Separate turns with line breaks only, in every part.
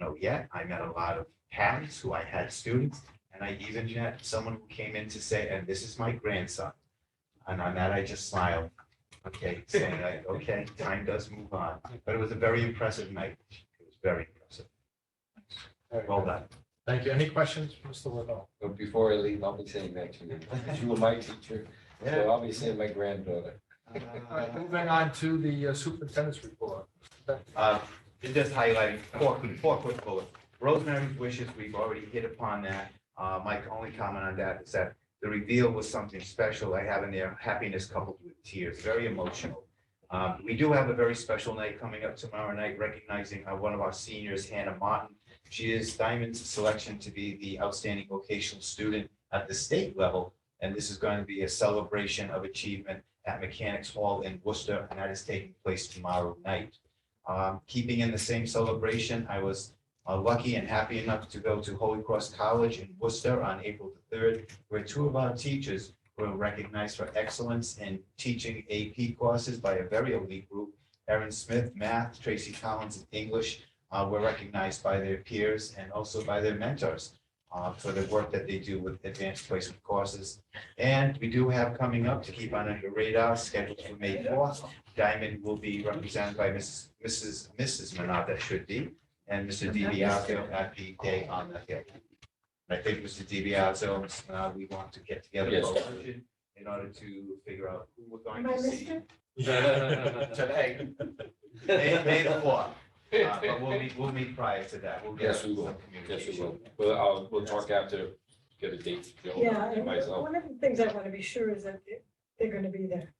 know yet. I met a lot of parents who I had students, and I even had someone who came in to say, and this is my grandson. And on that, I just smiled, okay, saying, like, okay, time does move on. But it was a very impressive night. It was very impressive.
Very
Well
good.
done.
Thank you. Any questions, for Mr. Lavelle?
But before I leave, I'll be saying that to you. You were my teacher, so I'll be saying my granddaughter.
All right, moving on to the uh, superintendent's report.
Uh, Just highlighting four, four quick bullets. Rosemary's wishes, we've already hit upon that. Uh, My only comment on that is that the reveal was something special. I have in there happiness coupled with tears, very emotional. Um, We do have a very special night coming up tomorrow night, recognizing uh, one of our seniors, Hannah Martin. She is Diamond's selection to be the outstanding vocational student at the state level. And this is going to be a celebration of achievement at Mechanics Hall in Worcester, and that is taking place tomorrow night. Um, keeping in the same celebration, I was uh, lucky and happy enough to go to Holy Cross College in Worcester on April the third, where two of our teachers were recognized for excellence in teaching AP courses by a very elite group. Erin Smith, math, Tracy Collins, and English, uh, were recognized by their peers and also by their mentors uh, for the work that they do with advanced placement courses. And we do have coming up to keep on under radar, scheduled for May fourth, Diamond will be represented by Mrs. Mrs. Mrs. Manat, that should be, and Mr. DiBiaseo at the day on the hill. And I think Mr. DiBiaseo, and Mrs. Manato, uh, we want to get together
Yes.
both in order to figure out who we're going
Am I
to see
listed?
today. May, May the fourth, Uh, but we'll meet, we'll meet prior to that. We'll get
Yes, we
some
will. Yes, we
communication.
will. Well, I'll, we'll talk after, get a date. you know,
Yeah, and
Myself.
one of the things I want to be sure is that they- they're going to be there.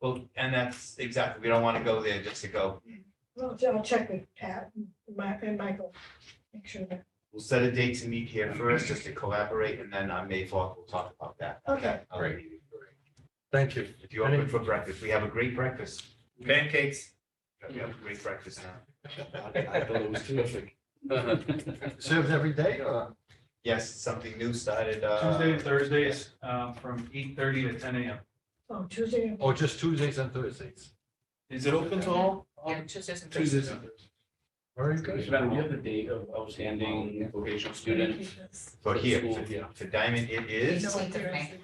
Well, and that's exactly, we don't want to go there just to go.
Well, I'll check with Pat and Mi- and Michael, make sure that,
We'll set a date to meet here first, just to collaborate, and then on May fourth, we'll talk about that.
Okay.
I'll
Great.
leave you.
Thank you.
If you're open for breakfast, we have a great breakfast. Pancakes. We have a great breakfast now.
I thought it was terrific.
Served every day or?
Yes, something new started. uh,
Tuesday and Thursdays, um, from eight thirty to ten AM.
oh, Tuesday,
Or just Tuesdays and Thursdays?
Is it open to all?
Yeah, Tuesdays and
Tuesdays.
Thursdays.
Very
Mr.
good.
Madam, do you have the date of outstanding vocational student?
For here,
School,
for-
yeah.
for Diamond, it is
Eighteenth of May.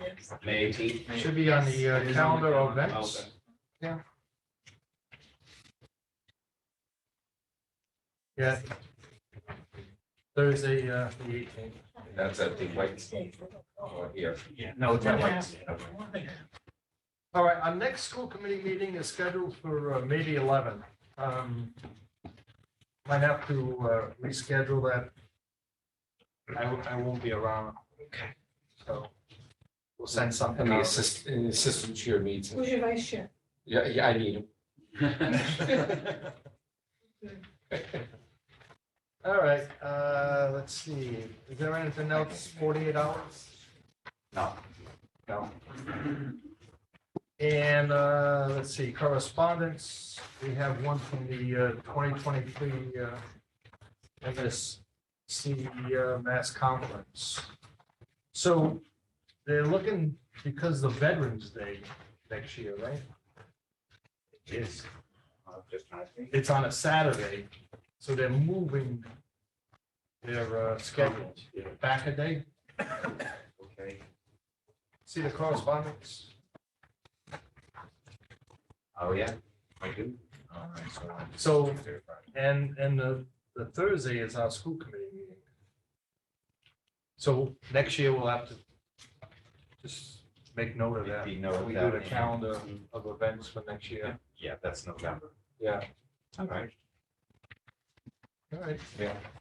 May eighteenth?
Should be on the uh,
It is on the
calendar of
calendar.
events. Yeah. Thursday, uh, the eighteenth.
That's at the white or here.
yeah, no, it's not like.
All right, our next school committee meeting is scheduled for uh, May the eleventh. Might have to uh, reschedule that. I, w- I won't be around. Okay. So we'll send
And
something
the
out.
assistant, and the assistant chair meets.
who's your vice chair?
Yeah, yeah, I need him.
All right, uh, let's see, is there anything else, forty-eight hours?
No.
No. And, uh, let's see, correspondence, we have one from the, uh, twenty twenty-three, uh, MSC, uh, Mass Conference. So they're looking, because the Veterans Day next year, right?
It is. Uh, just not-
It's on a Saturday, so they're moving their, uh, schedule back a day.
Okay.
See the correspondence?
Oh, yeah, I do. All right, so I'm just-
So, and, and the, the Thursday is our school committee meeting. So next year we'll have to just make note of that.
Make note of
We
that.
do the calendar of events for next year.
Yeah, that's November.
Yeah.
All right.
All right.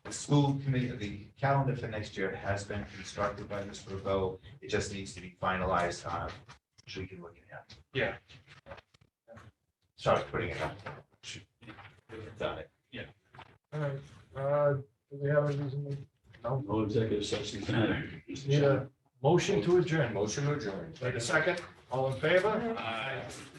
The school committee, the calendar for next year has been constructed by Mr. Rebo. It just needs to be finalized on, so we can look at it.
Yeah.
Sorry, putting it up. Done it.
All right. Uh, do we have a reason? No.
No executive session tonight.
Need a motion to adjourn.
Motion adjourned.
Wait a second. All in favor?
Uh,
Aye.